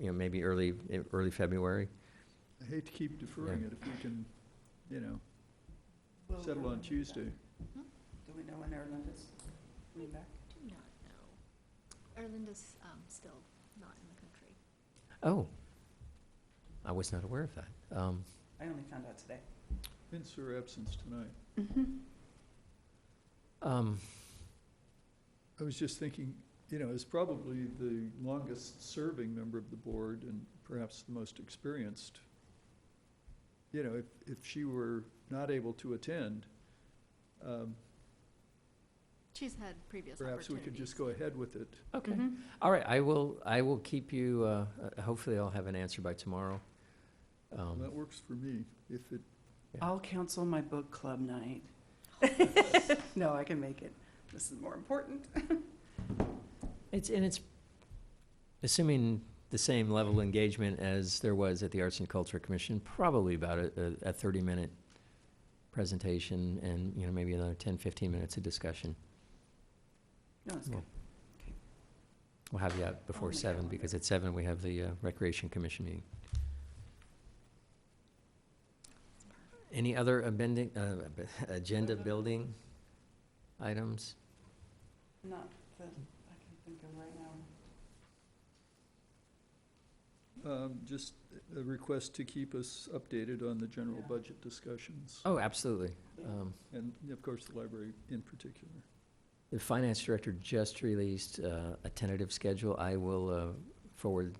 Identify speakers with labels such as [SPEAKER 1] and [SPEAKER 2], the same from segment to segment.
[SPEAKER 1] you know, maybe early, early February.
[SPEAKER 2] I hate to keep deferring it if we can, you know,
[SPEAKER 3] Will
[SPEAKER 2] settle
[SPEAKER 3] we
[SPEAKER 2] on
[SPEAKER 3] know that?
[SPEAKER 2] Tuesday.
[SPEAKER 3] Do we know when Erlinda's coming back?
[SPEAKER 4] Do not know. Erlinda's um, still not in the country.
[SPEAKER 1] Oh, I was not aware of that. Um,
[SPEAKER 3] I only found out today.
[SPEAKER 2] Hence her absence tonight.
[SPEAKER 1] um,
[SPEAKER 2] I was just thinking, you know, as probably the longest-serving member of the board and perhaps the most experienced, you know, if, if she were not able to attend, um,
[SPEAKER 4] She's had previous
[SPEAKER 2] perhaps
[SPEAKER 4] opportunities.
[SPEAKER 2] we could just go ahead with it.
[SPEAKER 1] Okay,
[SPEAKER 3] Mm-hmm.
[SPEAKER 1] all right, I will, I will keep you, uh, uh, hopefully I'll have an answer by tomorrow. Um,
[SPEAKER 2] That works for me, if it,
[SPEAKER 1] Yeah.
[SPEAKER 3] I'll cancel my book club night. No, I can make it. This is more important.
[SPEAKER 1] It's, and it's assuming the same level of engagement as there was at the Arts and Culture Commission, probably about a, a thirty-minute presentation and, you know, maybe another 10, 15 minutes of discussion.
[SPEAKER 3] No, it's good.
[SPEAKER 1] We'll have you out
[SPEAKER 3] Oh,
[SPEAKER 1] before
[SPEAKER 3] my
[SPEAKER 1] seven,
[SPEAKER 3] calendar.
[SPEAKER 1] because at seven, we have the uh, Recreation Commission meeting. Any other amending, uh, ab- agenda building items?
[SPEAKER 3] Not that I can think of right now.
[SPEAKER 2] um, just a request to keep us updated on the general
[SPEAKER 3] Yeah.
[SPEAKER 2] budget discussions.
[SPEAKER 1] Oh, absolutely.
[SPEAKER 2] Uh,
[SPEAKER 1] Um,
[SPEAKER 2] And of course, the library in particular.
[SPEAKER 1] The finance director just released uh, a tentative schedule. I will uh, forward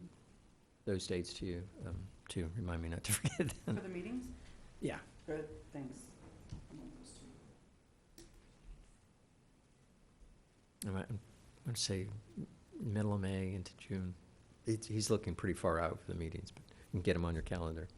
[SPEAKER 1] those dates to you, um, to remind me not to forget them.
[SPEAKER 3] For the meetings?
[SPEAKER 1] Yeah.
[SPEAKER 3] Good, thanks. I'm on those two.
[SPEAKER 1] I'm going to say middle of May into June. It's- He's looking pretty far out for the meetings, but you can get them on your calendar.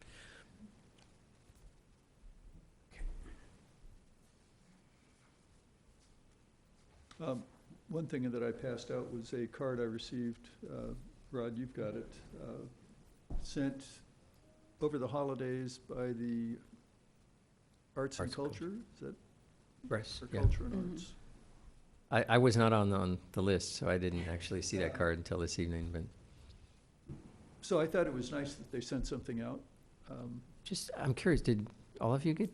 [SPEAKER 2] Um, One thing that I passed out was a card I received, uh, Rod, you've got it, uh, sent over the holidays by the Arts
[SPEAKER 1] Arts
[SPEAKER 2] and
[SPEAKER 1] and Culture.
[SPEAKER 2] Culture, is that,
[SPEAKER 1] Press,
[SPEAKER 2] or
[SPEAKER 1] yeah.
[SPEAKER 2] Culture
[SPEAKER 3] Mhm.
[SPEAKER 2] and Arts?
[SPEAKER 1] I, I was not on, on the list, so I didn't actually see that card until this evening, but
[SPEAKER 2] So I thought it was nice that they sent something out. Um,
[SPEAKER 1] just, I'm curious, did all of you get?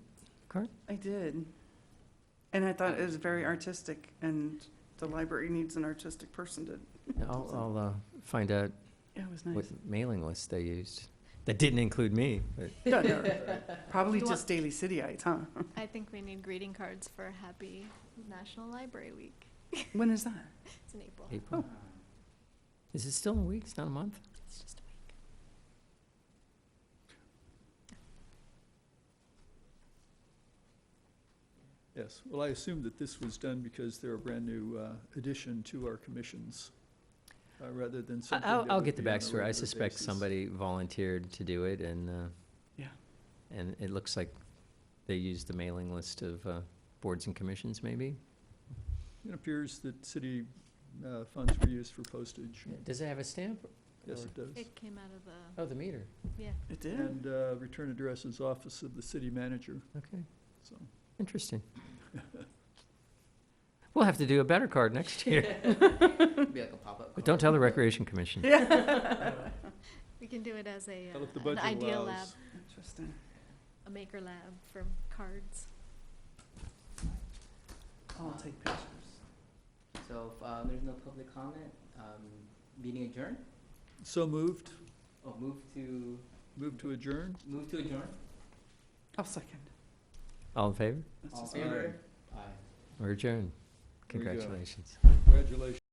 [SPEAKER 3] I did. And I thought it was very artistic, and the library needs an artistic person to,
[SPEAKER 1] I'll, I'll uh, find out
[SPEAKER 3] yeah, it was
[SPEAKER 1] what
[SPEAKER 3] nice.
[SPEAKER 1] mailing list they used. That didn't include me, but
[SPEAKER 3] No, no, Probably
[SPEAKER 4] You want-
[SPEAKER 3] just Daily Cityites, huh?
[SPEAKER 4] I think we need greeting cards for Happy National Library Week.
[SPEAKER 3] When is that?
[SPEAKER 4] It's in April.
[SPEAKER 3] Oh,
[SPEAKER 1] April. Is it still in weeks, not a month?
[SPEAKER 4] It's just a week.
[SPEAKER 2] Yes, well, I assume that this was done because they're a brand-new uh, addition to our commissions, uh, rather than
[SPEAKER 1] I-
[SPEAKER 2] something
[SPEAKER 1] I'll,
[SPEAKER 2] that
[SPEAKER 1] I'll
[SPEAKER 2] would
[SPEAKER 1] get the
[SPEAKER 2] be on a
[SPEAKER 1] backstory. I
[SPEAKER 2] regular
[SPEAKER 1] suspect
[SPEAKER 2] basis.
[SPEAKER 1] somebody volunteered to do it and, uh,
[SPEAKER 3] Yeah.
[SPEAKER 1] And it looks like they used the mailing list of, uh, boards and commissions maybe?
[SPEAKER 2] It appears that city uh, funds were used for postage.
[SPEAKER 1] Does it have a stamp?
[SPEAKER 2] Yes, it does.
[SPEAKER 4] It came out of the,
[SPEAKER 1] Oh, the meter.
[SPEAKER 4] yeah.
[SPEAKER 3] It did?
[SPEAKER 2] And uh, return address is office of the city manager.
[SPEAKER 1] Okay.
[SPEAKER 2] So,
[SPEAKER 1] Interesting. We'll have to do a better card next year.
[SPEAKER 5] Be like a pop-up.
[SPEAKER 1] But don't tell the Recreation Commission.
[SPEAKER 3] Yeah.
[SPEAKER 4] We can do it as a,
[SPEAKER 2] Well, if the
[SPEAKER 4] uh, an
[SPEAKER 2] budget
[SPEAKER 4] idea lab,
[SPEAKER 2] allows.
[SPEAKER 3] Interesting.
[SPEAKER 4] a maker lab for cards.
[SPEAKER 3] I'll take pictures.
[SPEAKER 5] So if um, there's no public comment, um, meeting adjourned?
[SPEAKER 2] So moved,
[SPEAKER 5] Oh, move to,
[SPEAKER 2] move to adjourn?
[SPEAKER 5] move to adjourn?
[SPEAKER 3] I'll second.
[SPEAKER 1] All in favor?
[SPEAKER 3] That's
[SPEAKER 5] All in
[SPEAKER 3] just-
[SPEAKER 2] Aye.
[SPEAKER 5] favor? Aye.
[SPEAKER 1] We're adjourned.
[SPEAKER 2] There you go.
[SPEAKER 1] Congratulations.
[SPEAKER 2] Congratulations.